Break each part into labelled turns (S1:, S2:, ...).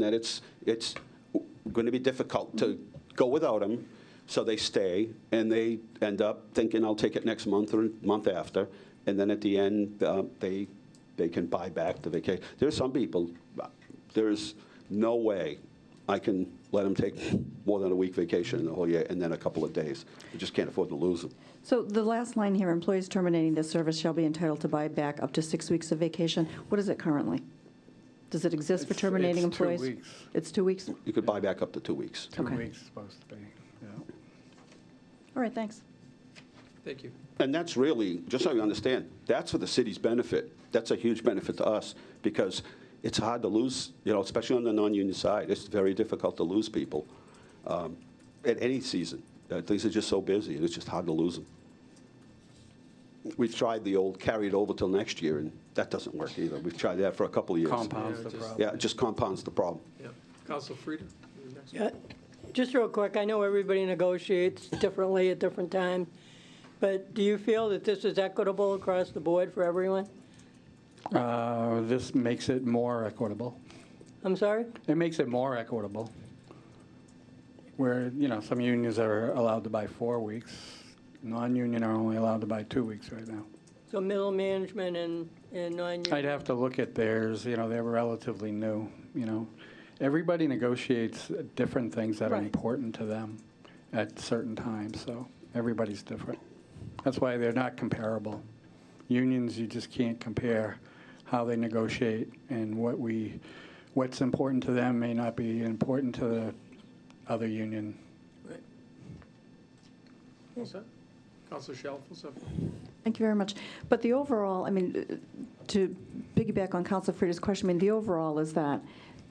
S1: that it's, it's going to be difficult to go without them, so they stay, and they end up thinking, I'll take it next month or month after, and then at the end, uh, they, they can buy back the vacation. There's some people, uh, there's no way I can let them take more than a week vacation in the whole year, and then a couple of days. I just can't afford to lose them.
S2: So the last line here, employees terminating this service shall be entitled to buy back up to six weeks of vacation. What is it currently? Does it exist for
S3: It's- it's
S2: terminating
S3: two
S2: employees?
S3: weeks.
S2: It's two weeks?
S1: You could buy back up to two weeks.
S3: Two
S2: Okay.
S3: weeks supposed to be, yeah.
S2: All right, thanks.
S4: Thank you.
S1: And that's really, just so you understand, that's for the city's benefit. That's a huge benefit to us because it's hard to lose, you know, especially on the non-union side. It's very difficult to lose people um, at any season. Uh, Things are just so busy, and it's just hard to lose them. We've tried the old carry it over till next year, and that doesn't work either. We've tried that for a couple of years.
S4: Compounds the problem.
S1: Yeah, it just compounds the problem.
S4: Yeah. Council Frida? you're next.
S5: Yeah, Just real quick, I know everybody negotiates differently at different times, but do you feel that this is equitable across the board for everyone?
S3: Uh, This makes it more equitable.
S5: I'm sorry?
S3: It makes it more equitable. Where, you know, some unions are allowed to buy four weeks, non-union are only allowed to buy two weeks right now.
S5: So middle management and, and non-union?
S3: I'd have to look at theirs, you know, they're relatively new, you know. Everybody negotiates different things that are
S2: Right.
S3: important to them at certain times, so everybody's different. That's why they're not comparable. Unions, you just can't compare how they negotiate and what we, what's important to them may not be important to the other union.
S4: Right. All set? Council Shalfo, what's up?
S2: Thank you very much. But the overall, I mean, uh, to piggyback on Council Frita's question, I mean, the overall is that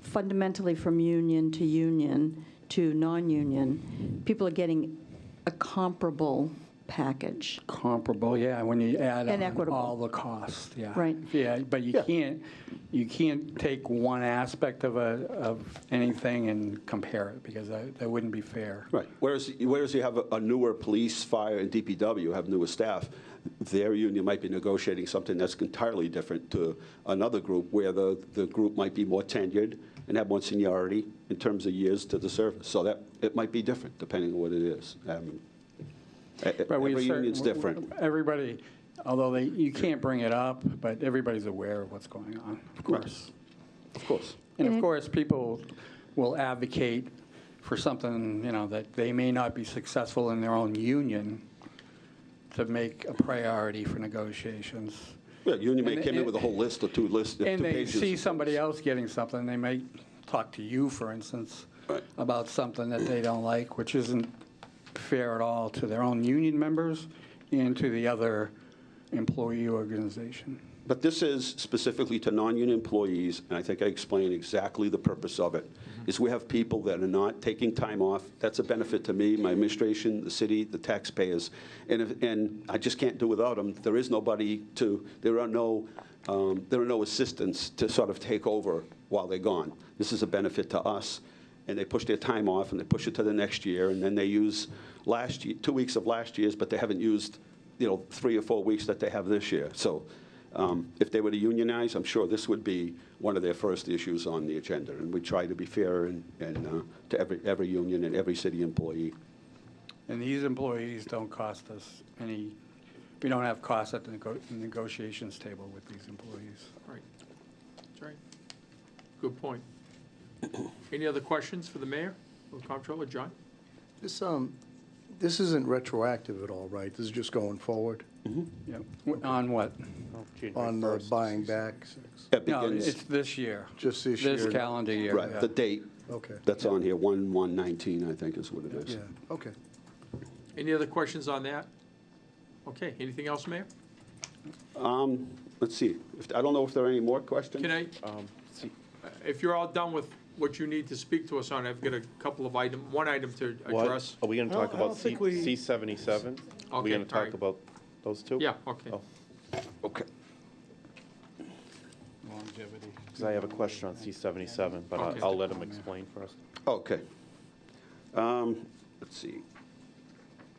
S2: fundamentally from union to union to non-union, people are getting a comparable package.
S3: Comparable, yeah, when you add
S2: And
S3: on
S2: equitable.
S3: all the costs, yeah.
S2: Right.
S3: Yeah, but you
S1: Yeah.
S3: can't, you can't take one aspect of a, of anything and compare it, because that, that wouldn't be fair.
S1: Right. Whereas, whereas you have a- a newer police, fire, and DPW have newer staff, their union might be negotiating something that's entirely different to another group where the, the group might be more tenured and have more seniority in terms of years to the service. So that, it might be different depending on what it is. Um, e- e-
S3: But we
S1: Every
S3: cer-
S1: union's different.
S3: Everybody, although they, you can't bring it up, but everybody's aware of what's going on, of course.
S1: Of course.
S3: And of course, people will advocate for something, you know, that they may not be successful in their own union to make a priority for negotiations.
S1: Yeah, union may
S3: And-
S1: came in
S3: and-
S1: with a whole list of two lists, two pages.
S3: And they
S1: of
S3: see
S1: things.
S3: somebody else getting something, they might talk to you, for instance,
S1: Right.
S3: about something that they don't like, which isn't fair at all to their own union members and to the other employee organization.
S1: But this is specifically to non-union employees, and I think I explained exactly the purpose of it, is we have people that are not taking time off. That's a benefit to me, my administration, the city, the taxpayers. And, if- and I just can't do without them. There is nobody to, there are no, um, there are no assistants to sort of take over while they're gone. This is a benefit to us and they push their time off and they push it to the next year and then they use last year, two weeks of last year's but they haven't used you know three or four weeks that they have this year so um, if they were to unionize i'm sure this would be one of their first issues on the agenda and we try to be fair and, and uh, to every, every union and every city employee
S3: And these employees don't cost us any, we don't have costs at the nego- negotiations table with these employees.
S4: Right. That's right. Good point. Any other questions for the mayor or comptroller, John?
S6: This, um, this isn't retroactive at all, right? This is just going forward
S3: Yep. On what?
S6: on the buying back?
S1: That
S3: No,
S1: begins-
S3: it's this year.
S6: Just this
S3: This
S6: year.
S3: calendar year.
S1: right
S3: yeah.
S1: the date
S6: Okay,
S1: that's on here 1 1 19 i think is what it is
S6: yeah, okay.
S4: Any other questions on that? Okay, anything else, Mayor?
S1: um, let's see if, i don't know if there are any more questions
S4: Can I,
S7: Um,
S4: uh, if you're all done with what you need to speak to us on, I've got a couple of item, one item to
S7: What,
S4: address.
S7: are we gonna talk
S6: I don't
S7: about C,
S6: think we-
S7: C seventy-seven? Are
S4: Okay,
S7: we gonna
S4: all right.
S7: talk about those two?
S4: Yeah, okay.
S7: Oh,
S1: okay
S3: Longevity.
S7: Cause I have a question on C seventy-seven, but
S4: Okay.
S7: I'll, I'll let him explain first.
S1: okay um, let's see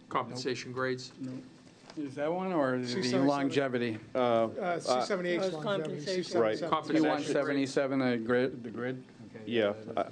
S4: Compensation grades.
S3: Is that one, or is it the
S8: 677?
S3: longevity?
S8: Uh, C-78 's
S5: Uh,
S8: longevity,
S5: compensation.
S8: C-77 's
S7: Right.
S8: compensation.
S3: You want
S4: Compensation grades.
S3: 77 the grid, the grid? Okay,
S7: Yeah,
S3: that is-
S7: I-